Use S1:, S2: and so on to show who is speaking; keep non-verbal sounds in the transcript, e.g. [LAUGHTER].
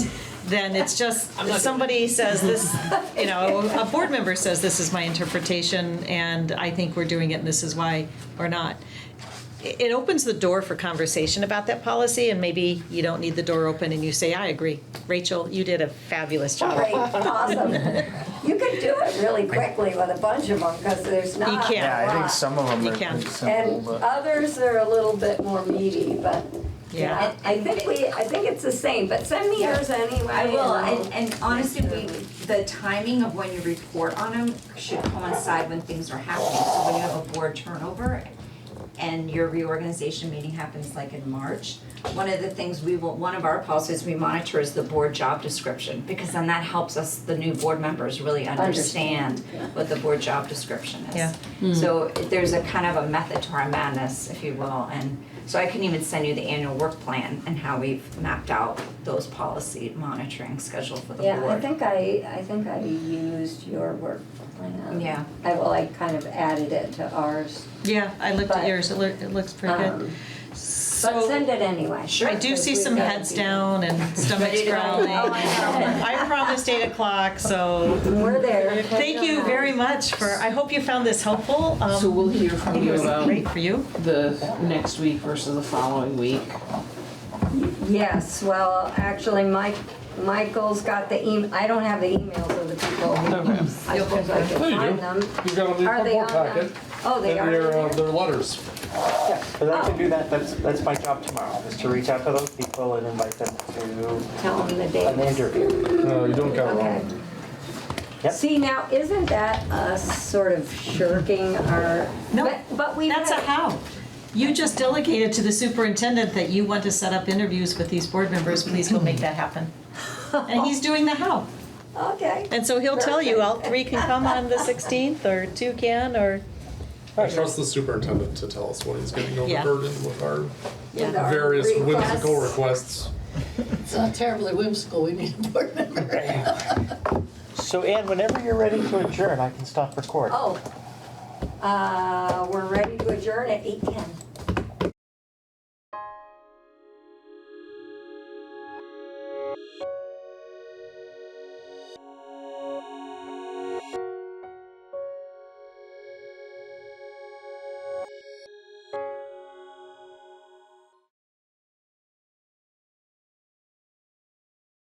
S1: then it's just, somebody says this, you know, a board member says this is my interpretation and I think we're doing it and this is why or not. It it opens the door for conversation about that policy and maybe you don't need the door open and you say, I agree. Rachel, you did a fabulous job.
S2: Great, awesome. You can do it really quickly with a bunch of them, because there's not a lot.
S1: can't.
S3: Yeah, I think some of them
S1: You
S3: are
S1: can.
S3: pretty simple,
S2: And
S3: but
S2: others are a little bit more meaty, but,
S1: Yeah.
S2: yeah, I think we, I think it's the same, but send me yours anyway.
S4: I will,
S2: and
S4: and, and honestly, we, the timing of when you report on them should coincide when things are happening. So when you have a board turnover and your reorganization meeting happens like in March, one of the things we will, one of our policies we monitor is the board job description, because then that helps us, the new board members really understand what the board job description is.
S1: Yeah.
S2: Hmm.
S4: So there's a kind of a method to our madness, if you will, and so I can even send you the annual work plan and how we've mapped out those policy monitoring schedule for the
S2: Yeah, I
S4: board.
S2: think I, I think I used your work plan.
S4: Yeah.
S2: I, well, I kind of added it to ours,
S1: Yeah, I looked at
S2: But,
S1: yours, it loo- it looks pretty good.
S2: um, but
S1: So
S2: send it anyway.
S4: Sure.
S1: I do
S2: because
S1: see
S2: we've
S1: some
S2: got to
S1: heads
S2: be-
S1: down and stomachs
S4: Ready to go.
S1: growling.
S4: Oh, I know.
S1: [LAUGHS] I promised eight o'clock, so
S2: We're there.
S1: Thank you very much for, I hope you found this helpful. Um,
S5: So we'll hear
S1: I
S5: from
S1: think it
S5: you
S1: was
S5: about
S1: great for you.
S5: the next week versus the following week.
S2: Yes, well, actually, Mike, Michael's got the email, I don't have the emails of the people.
S5: Okay.
S2: I suppose I
S6: There
S2: could
S6: you
S2: find
S6: go.
S2: them.
S6: You've got them in
S2: Are
S6: the
S2: they
S6: board
S2: on them?
S6: packet.
S2: Oh, they
S6: And
S2: are.
S6: They're, uh,
S2: in there?
S6: they're letters.
S3: but I can do that, that's, that's my job tomorrow, is to reach out to those people and invite them to
S2: Tell them the
S3: an
S2: dates.
S3: interview.
S6: No, you don't got it
S2: Okay.
S6: wrong. Yep.
S2: See, now, isn't that us sort of shirking our?
S1: No,
S2: but- But we.
S1: That's a
S2: had-
S1: how. You just delegated to the superintendent that you want to set up interviews with these board members, please go make that happen. And he's doing the how.
S2: Okay.
S1: And so he'll tell you, all three can come on the 16th, or two can, or,
S7: I trust the superintendent to tell us what he's getting
S1: Yeah.
S7: overburdened with our
S2: With our
S7: various whimsical
S2: requests.
S7: requests.
S8: It's not terribly whimsical, we need a board member.
S3: So Ann, whenever you're ready to adjourn, I can stop recording.
S2: Oh, uh, we're ready to adjourn at eight ten.